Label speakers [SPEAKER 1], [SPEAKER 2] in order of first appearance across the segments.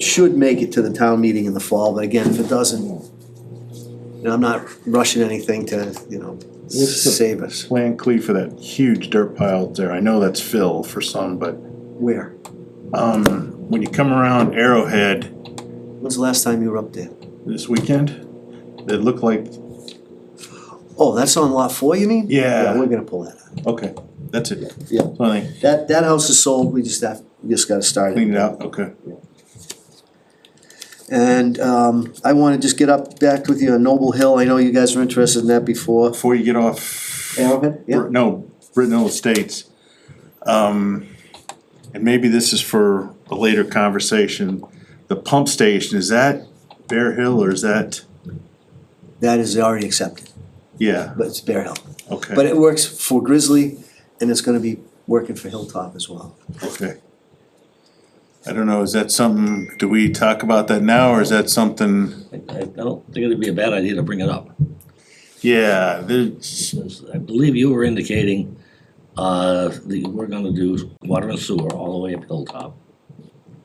[SPEAKER 1] should make it to the town meeting in the fall, but again, if it doesn't, and I'm not rushing anything to, you know,
[SPEAKER 2] What's the-
[SPEAKER 1] save us.
[SPEAKER 2] Plan Cleve for that huge dirt pile there, I know that's fill for some, but,
[SPEAKER 1] Where?
[SPEAKER 2] um, when you come around Arrowhead
[SPEAKER 1] When's the last time you were up there?
[SPEAKER 2] this weekend, it looked like,
[SPEAKER 1] Oh, that's on lot four, you mean?
[SPEAKER 2] Yeah.
[SPEAKER 1] We're gonna pull that out.
[SPEAKER 2] okay, that's it.
[SPEAKER 1] Yeah.
[SPEAKER 2] So they
[SPEAKER 1] That, that house is sold, we just have, we just gotta start it.
[SPEAKER 2] cleaned it out, okay.
[SPEAKER 1] And, um, I wanna just get up, back with you on Noble Hill, I know you guys were interested in that before.
[SPEAKER 2] Before you get off.
[SPEAKER 1] Arrowhead, yeah.
[SPEAKER 2] Br- No, Brittenell Estates. Um, and maybe this is for a later conversation, the pump station, is that Bear Hill or is that,
[SPEAKER 1] That is already accepted,
[SPEAKER 2] yeah,
[SPEAKER 1] but it's Bear Hill.
[SPEAKER 2] okay.
[SPEAKER 1] But it works for Grizzly, and it's gonna be working for Hilltop as well.
[SPEAKER 2] Okay. I don't know, is that something, do we talk about that now, or is that something,
[SPEAKER 3] I, I don't think it'd be a bad idea to bring it up.
[SPEAKER 2] yeah, there's,
[SPEAKER 3] I believe you were indicating, uh, that we're gonna do water and sewer all the way up Hilltop,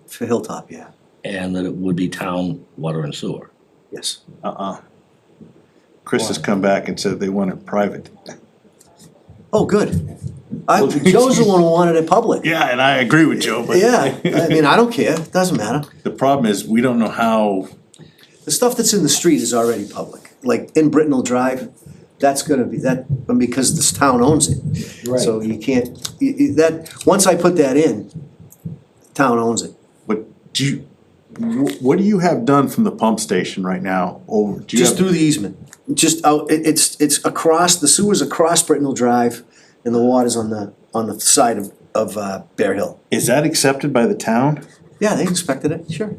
[SPEAKER 1] For Hilltop, yeah,
[SPEAKER 3] and that it would be town water and sewer.
[SPEAKER 1] yes.
[SPEAKER 2] uh-uh. Chris has come back and said they want it private.
[SPEAKER 1] Oh, good. I, Joe's the one who wanted it public.
[SPEAKER 2] Yeah, and I agree with Joe, but.
[SPEAKER 1] Yeah, I mean, I don't care, it doesn't matter.
[SPEAKER 2] The problem is, we don't know how,
[SPEAKER 1] The stuff that's in the street is already public, like in Brittenell Drive, that's gonna be, that, because this town owns it. So you can't, you- you- that, once I put that in, town owns it.
[SPEAKER 2] but do you, wh- what do you have done from the pump station right now, over, do you
[SPEAKER 1] Just
[SPEAKER 2] have?
[SPEAKER 1] through the easement, just out, it, it's, it's across, the sewer's across Brittenell Drive, and the water's on the, on the side of, of, uh, Bear Hill.
[SPEAKER 2] Is that accepted by the town?
[SPEAKER 1] Yeah, they inspected it, sure.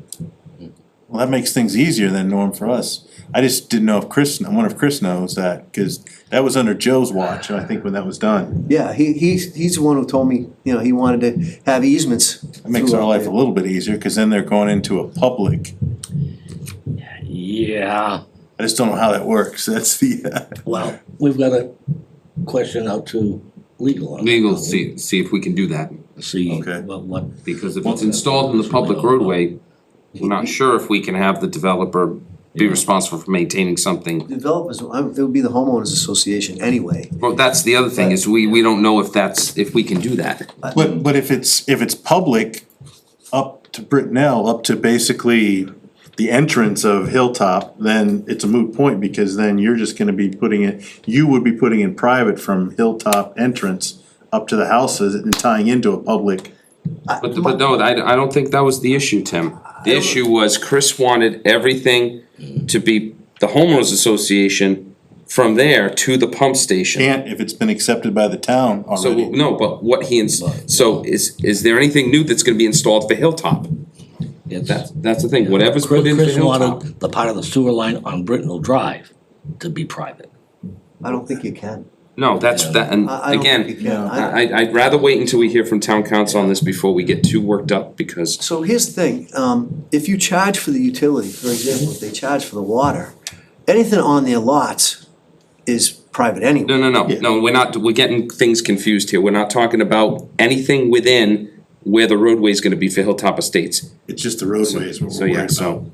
[SPEAKER 2] Well, that makes things easier than Norm for us. I just didn't know if Chris, I wonder if Chris knows that, cause that was under Joe's watch, and I think when that was done,
[SPEAKER 1] Yeah, he, he's, he's the one who told me, you know, he wanted to have easements.
[SPEAKER 2] it makes our life a little bit easier, cause then they're going into a public.
[SPEAKER 3] Yeah,
[SPEAKER 2] I just don't know how that works, that's the,
[SPEAKER 3] well, we've got a question out to legal. on-
[SPEAKER 4] Legal, see, see if we can do that,
[SPEAKER 3] See,
[SPEAKER 2] Okay.
[SPEAKER 3] what, what,
[SPEAKER 4] because if it's installed in the public roadway, we're not sure if we can have the developer be responsible for maintaining something.
[SPEAKER 1] Developers, I- it would be the homeowners association anyway.
[SPEAKER 4] Well, that's the other thing, is we, we don't know if that's, if we can do that.
[SPEAKER 2] but, but if it's, if it's public, up to Brittenell, up to basically the entrance of Hilltop, then it's a moot point, because then you're just gonna be putting it, you would be putting in private from Hilltop entrance up to the houses and tying into a public.
[SPEAKER 4] But, the- but no, I, I don't think that was the issue, Tim. The issue was Chris wanted everything to be the homeowners association from there to the pump station.
[SPEAKER 2] can't if it's been accepted by the town
[SPEAKER 4] So,
[SPEAKER 2] already.
[SPEAKER 4] no, but what he, ins- so is, is there anything new that's gonna be installed for Hilltop? That's,
[SPEAKER 3] it's,
[SPEAKER 4] that's the thing, whatever's put in for
[SPEAKER 3] Chris
[SPEAKER 4] Hilltop.
[SPEAKER 3] wanted the part of the sewer line on Brittenell Drive to be private.
[SPEAKER 1] I don't think you can.
[SPEAKER 4] No, that's,
[SPEAKER 3] Yeah.
[SPEAKER 4] that, and
[SPEAKER 1] I- I don't think you
[SPEAKER 4] again,
[SPEAKER 1] can. I-
[SPEAKER 4] I, I- I'd rather wait until we hear from town council on this before we get too worked up, because
[SPEAKER 1] So here's the thing, um, if you charge for the utility, for example, if they charge for the water, anything on their lots is private
[SPEAKER 4] No,
[SPEAKER 1] anyway.
[SPEAKER 4] no, no, no, we're not, we're getting things confused here, we're not talking about anything within where the roadway's gonna be for Hilltop Estates.
[SPEAKER 2] It's just the roadways we're
[SPEAKER 4] So, yeah,
[SPEAKER 2] worried about.
[SPEAKER 4] so,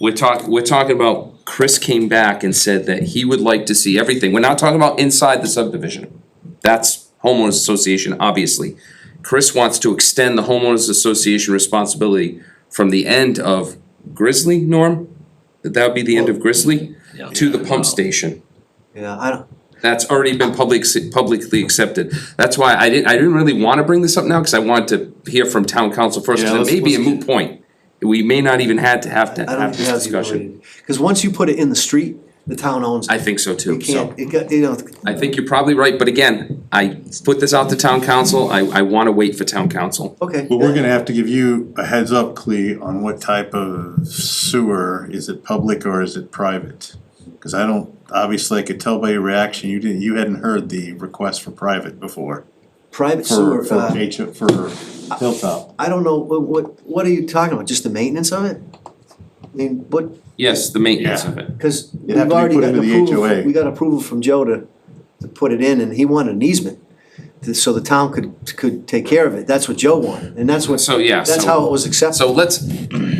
[SPEAKER 4] we're talking, we're talking about, Chris came back and said that he would like to see everything, we're not talking about inside the subdivision. That's homeowners association, obviously. Chris wants to extend the homeowners association responsibility from the end of Grizzly, Norm? That that would be the end of Grizzly,
[SPEAKER 3] Yeah.
[SPEAKER 4] to the pump station.
[SPEAKER 1] Yeah, I don't,
[SPEAKER 4] That's already been public, publicly accepted. That's why I didn't, I didn't really wanna bring this up now, cause I wanted to hear from town council first,
[SPEAKER 2] Yeah,
[SPEAKER 4] cause
[SPEAKER 2] let's-
[SPEAKER 4] it may be a
[SPEAKER 2] let's
[SPEAKER 4] moot point. We may not even had to have to
[SPEAKER 1] I don't
[SPEAKER 4] have
[SPEAKER 1] think
[SPEAKER 4] this
[SPEAKER 1] you have the
[SPEAKER 4] discussion.
[SPEAKER 1] ability. Cause once you put it in the street, the town owns
[SPEAKER 4] I
[SPEAKER 1] it.
[SPEAKER 4] think so
[SPEAKER 1] You
[SPEAKER 4] too, so.
[SPEAKER 1] can't, it got, you know,
[SPEAKER 4] I think you're probably right, but again, I put this out to town council, I, I wanna wait for town council.
[SPEAKER 1] okay.
[SPEAKER 2] But we're gonna have to give you a heads up, Clea, on what type of sewer, is it public or is it private? Cause I don't, obviously, I could tell by your reaction, you didn't, you hadn't heard the request for private before.
[SPEAKER 1] Private
[SPEAKER 2] For,
[SPEAKER 1] sewer,
[SPEAKER 2] for
[SPEAKER 1] uh,
[SPEAKER 2] H, for Hilltop.
[SPEAKER 1] I don't know, what, what, what are you talking about, just the maintenance of it? I mean, what,
[SPEAKER 4] Yes, the maintenance
[SPEAKER 2] Yeah.
[SPEAKER 4] of it.
[SPEAKER 1] Cause we've
[SPEAKER 2] have to be
[SPEAKER 1] already
[SPEAKER 2] put
[SPEAKER 1] gotten
[SPEAKER 2] into the
[SPEAKER 1] approval,
[SPEAKER 2] HOA.
[SPEAKER 1] we got approval from Joe to, to put it in, and he wanted an easement. to- So the town could, could take care of it, that's what Joe wanted, and that's what,
[SPEAKER 4] So, yeah,
[SPEAKER 1] that's
[SPEAKER 4] so-
[SPEAKER 1] how it was accepted.
[SPEAKER 4] So let's,